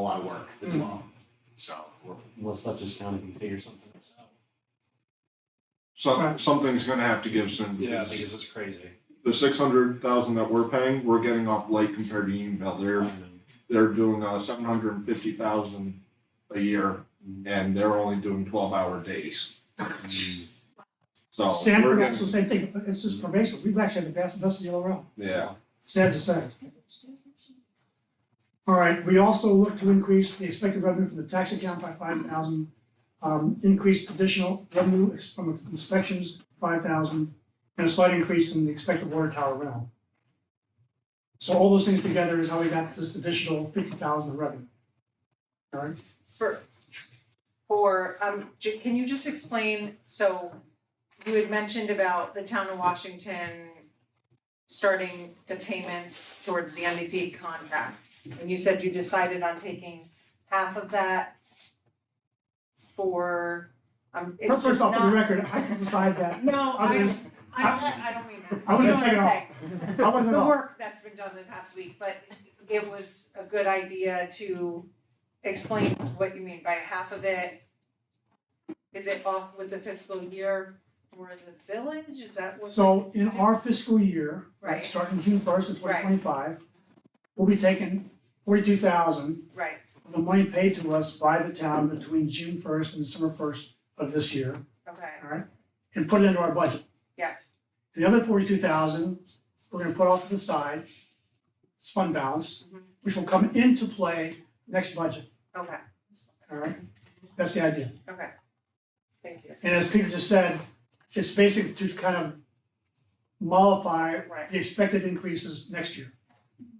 lot of work as well. So we're, let's let this county can figure something else out. So, something's gonna have to give soon. Yeah, because because it's crazy. The six hundred thousand that we're paying, we're getting off light compared to Unionville. They're, they're doing, uh, seven hundred and fifty thousand a year and they're only doing twelve hour days. So. we're Stanford getting- also same thing, it's just pervasive, we've actually had the best, best deal around, Yeah, sad to say. All right, we also look to increase the expected revenue from the tax account by five thousand, um, increased additional revenue ex- from inspections, five thousand, and a slight increase in the expected water tower rental. So all those things together is how we got this additional fifty thousand of revenue. All right, for, for, um, j- can you just explain, so you had mentioned about the town of Washington starting the payments towards the MVP contract, and you said you decided on taking half of that for, um, it's first just off, for the not- record, I can decide that, No, I don't, others, I don't, I don't mean that. I wouldn't You know what take it I'm off. saying? I wouldn't the know. work that's been done the past week, but it was a good idea to explain what you mean by half of it. Is it off with the fiscal year for the village? Is that what? So in our fiscal year, Right. right, starting June first of twenty Right. twenty-five, we'll be taking forty-two thousand Right, of the money paid to us by the town between June first and December first of this year, okay, alright? And put it into our budget. yes, The other forty-two thousand, we're gonna put off to the side, it's fund balance, Mhm. which will come into play next budget, okay, alright? That's the idea. okay. Thank you. And as Peter just said, it's basically to kind of mollify Right. the expected increases next year.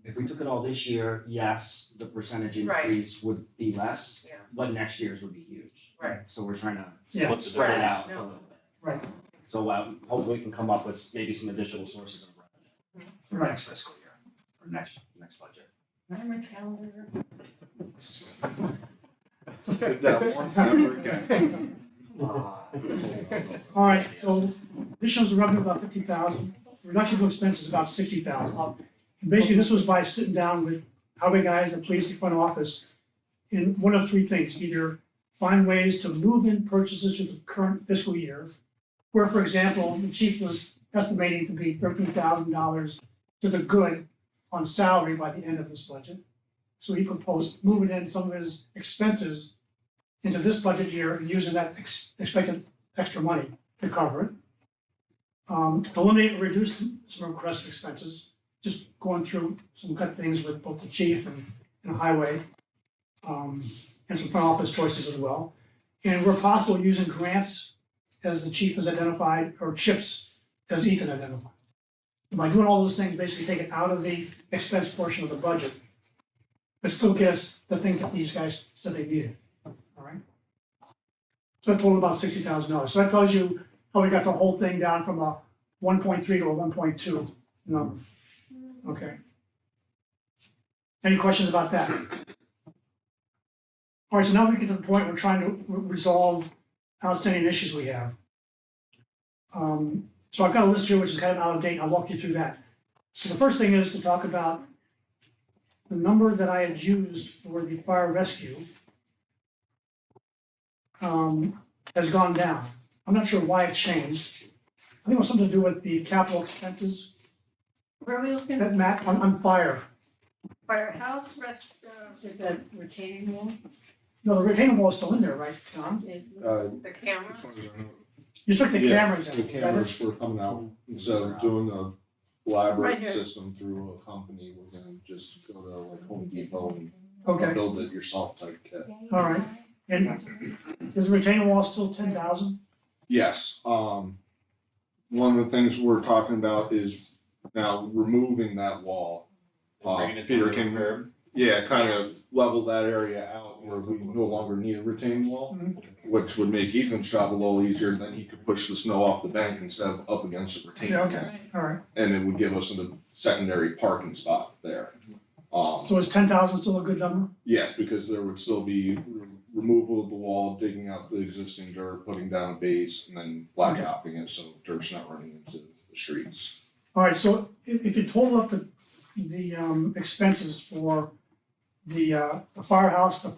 If we took it all this year, yes, the percentage Right. increase would be less, Yeah. but next year's would be huge. Right. So we're trying to Yeah. put- spread it Right. out a No. little bit. Right. So um hopefully we can come up with maybe some additional sources of revenue Mm-hmm. for Right. next fiscal year or next next budget. I'm a calendar. did that once, never again. All right, so additions to revenue about fifty thousand, reduction to expenses about sixty thousand. Basically, this was by sitting down with highway guys, the police, the front office, in one of three things, either find ways to move in purchases to the current fiscal year, where, for example, the chief was estimating to be thirteen thousand dollars to the good on salary by the end of this budget. So he proposed moving in some of his expenses into this budget year and using that ex- expected extra money to cover it. Um, eliminate and reduce some requested expenses, just going through some cut things with both the chief and, and highway. Um, and some front office choices as well. And where possible, using grants as the chief has identified, or chips as Ethan identified. And by doing all those things, basically take it out of the expense portion of the budget, but still gets the things that these guys said they needed, all right? So that totaled about sixty thousand dollars. So that tells you how Oh, we got the whole thing down from a one point three to a one point two number. Okay. Any questions about that? All right, so now we get to the point we're trying to re- resolve outstanding issues we have. Um, so I've got a list here which is kind of out of date. I'll walk you through that. So the first thing is to talk about the number that I had used for the fire rescue um, has gone down. I'm not sure why it changed. I think it was something to do with the capital expenses Where are we looking? that Matt, on, on fire. Firehouse, rest, uh, is it the retaining wall? No, the retaining wall is still in there, right, Tom? Uh, The cameras? You took the Yeah, cameras Mm-hmm. out. The cameras were coming out, instead of doing a Right elaborate here. system through a company, we're gonna just go to like Home Depot and Okay, build it yourself type kit. all right. And is the retaining wall still ten thousand? Yes, um, one of the things we're talking about is now removing that wall. Uh, Peter can, yeah, kind of level that area out where we no longer need a retaining wall, which would make Ethan's job a little easier, then he could push the snow off the bank instead of up against the retaining. Yeah, wall. okay, all right. And it would give us a secondary parking spot there. Um, So is ten thousand still a good number? yes, because there would still be re- removal of the wall, digging out the existing dirt, putting down a base, and then blacktopping it, so dirt's not running into the streets. All right, so if, if you total up the, the, um, expenses for the uh, the firehouse, the